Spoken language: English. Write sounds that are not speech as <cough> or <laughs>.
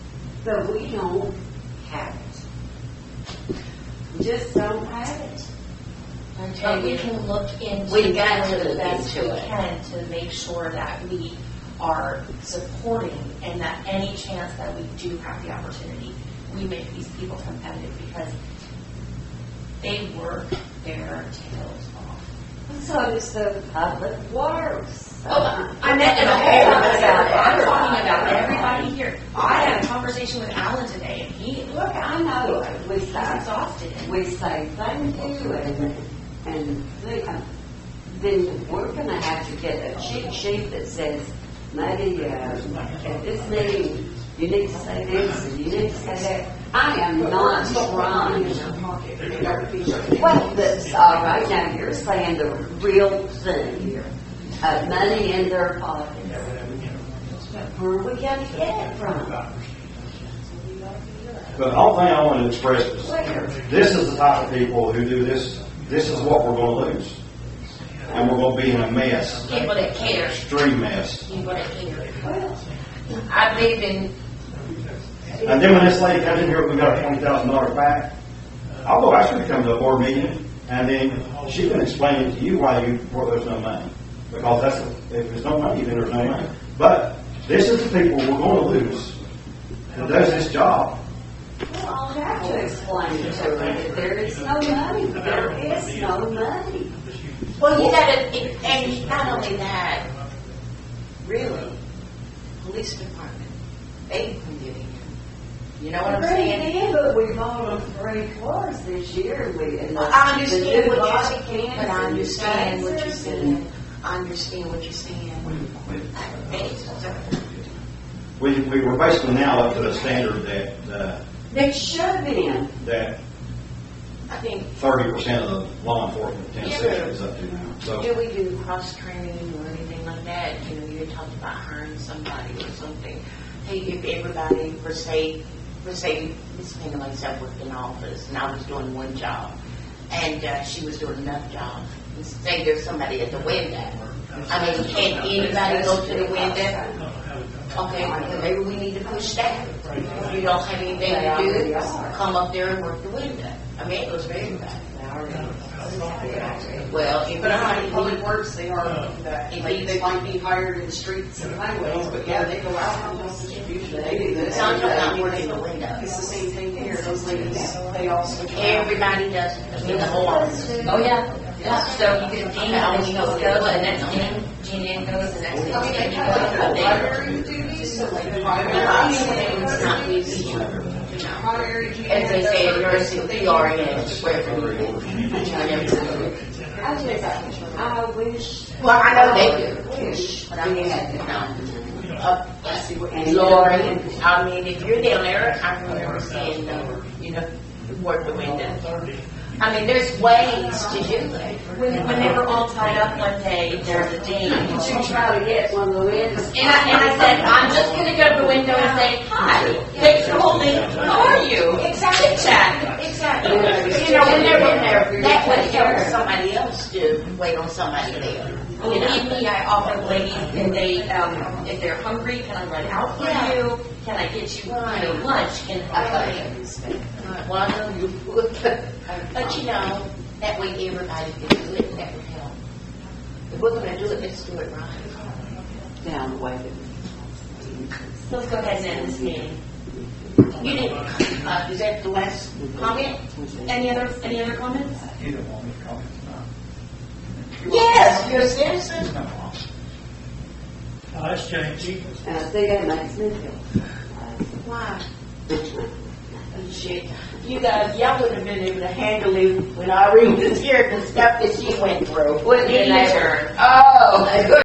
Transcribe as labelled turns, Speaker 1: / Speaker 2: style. Speaker 1: So we don't have it. We Just don't have it.
Speaker 2: But we can look into.
Speaker 1: We got to
Speaker 2: it
Speaker 1: look
Speaker 2: As we
Speaker 1: into it.
Speaker 2: can to make sure that we are supporting and that any chance that we do have the opportunity, we make these people competitive because they work their tails off.
Speaker 1: So does the public works.
Speaker 2: Oh, I meant
Speaker 1: <laughs>
Speaker 2: in a whole other salary. I'm talking about everybody here. I had a conversation with Alan today and he,
Speaker 1: Look, I know, it. we
Speaker 2: he's
Speaker 1: say,
Speaker 2: exhausted.
Speaker 1: we say thank you and, and they- uh, then we're gonna have to get a cheat sheet that says, maybe, uh, at this meeting, you need to say this and you need to say that. I am not trying Well, that's, all right, now you're saying the real thing here, uh, money in their pockets. Where are we gonna get it from?
Speaker 3: But the whole thing I want to express is, this is the type of people who do this, this is what we're going to lose. And we're going to be in a mess,
Speaker 2: People that care,
Speaker 3: extreme mess.
Speaker 2: people that care.
Speaker 1: Well,
Speaker 2: I believe in
Speaker 3: And then when this lady comes in here, we got a twenty thousand dollar back, I'll go ask her to come to a board meeting, and then she can explain it to you why you, why there's no money. Because that's, if there's no money, then there's no money. But this is the people we're going to lose, who does this job.
Speaker 1: Well, I'll have to explain to her that there is no money, there is no money,
Speaker 2: Well, you gotta, and- and not only that, really, police department, they've been getting in. You know what I'm saying?
Speaker 1: Really, but we've owned three cars this year, and we. and the-
Speaker 2: I understand
Speaker 1: the new
Speaker 2: what you're
Speaker 1: body
Speaker 2: saying,
Speaker 1: cams and
Speaker 2: but I
Speaker 1: the
Speaker 2: understand what you're
Speaker 1: taxes
Speaker 2: saying. I understand what you're saying. Thanks.
Speaker 3: We, we were basically now up to the standard that, uh,
Speaker 1: and- They should have been,
Speaker 3: that
Speaker 2: I think,
Speaker 3: thirty percent of the law enforcement in Tennessee
Speaker 2: Yeah.
Speaker 3: is up to now, so.
Speaker 2: do we do cross-training or anything like that? You know, you had talked about hiring somebody or something. Hey, if everybody, for say, for say, Miss Pena myself worked in office, and I was doing one job, and uh, she was doing another job, and say there's somebody at the window. I mean, can anybody go to the window? Okay, well, maybe we need to push that. If you don't have anything to do, come up there and work the window. I mean, it was very bad. Well, if
Speaker 4: But I'm like,
Speaker 2: not,
Speaker 4: public works, they are, that, like, they might be hired in the streets and highways, but yeah, they go out on those distribution, they do this.
Speaker 2: Some not working the window.
Speaker 4: It's the same thing here, those ladies, they also.
Speaker 2: Everybody does, I mean, the whole office.
Speaker 5: Oh, yeah.
Speaker 2: Yeah, so you can, Gina always goes, and that's Gina, Gina goes, and that's Gina. and
Speaker 4: Primary
Speaker 2: you go there.
Speaker 4: duties, so like
Speaker 2: Lots of
Speaker 4: primary,
Speaker 2: things, not easy, you know.
Speaker 4: primary duties.
Speaker 2: As they say, in nursing, we are in it, wherever you go.
Speaker 1: I just, I wish.
Speaker 2: Well, I know they do,
Speaker 1: Wish
Speaker 2: but I mean,
Speaker 1: we had
Speaker 2: you
Speaker 1: it.
Speaker 2: know, up, I see what
Speaker 1: And
Speaker 2: you're Lori, I mean, if you're down there, I remember saying, no, you know, work the window. I mean, there's ways to do it. When, when they were all tied up one day, there's a dean.
Speaker 1: To try to get one of the wins.
Speaker 2: And I, and I said, I'm just gonna go to the window and say, hi, they told me, how are you? Exactly. Chat, exactly. You know, when they're in there, that would help somebody else to wait on somebody there. You know?
Speaker 6: Believe me, I offer ladies, if they, um, if they're hungry, can I run out for
Speaker 2: Yeah.
Speaker 6: you? Can I get you, you know, lunch? And I
Speaker 2: Right. Well, I know you would, but you know, that way everybody can do it, and that would help. If we're gonna do it, let's do it right.
Speaker 1: Down the way that
Speaker 6: let's go ahead and end this meeting.
Speaker 2: You didn't, uh, is that the last comment?
Speaker 6: Any other, any other comments?
Speaker 2: Yes, you're a citizen.
Speaker 7: Oh, that's changing.
Speaker 1: And I think that makes me feel.
Speaker 2: Why? Shit, you guys, y'all wouldn't have been able to handle it when Irene was here, the stuff that she went through.
Speaker 1: Wouldn't it, neighbor?
Speaker 2: Oh.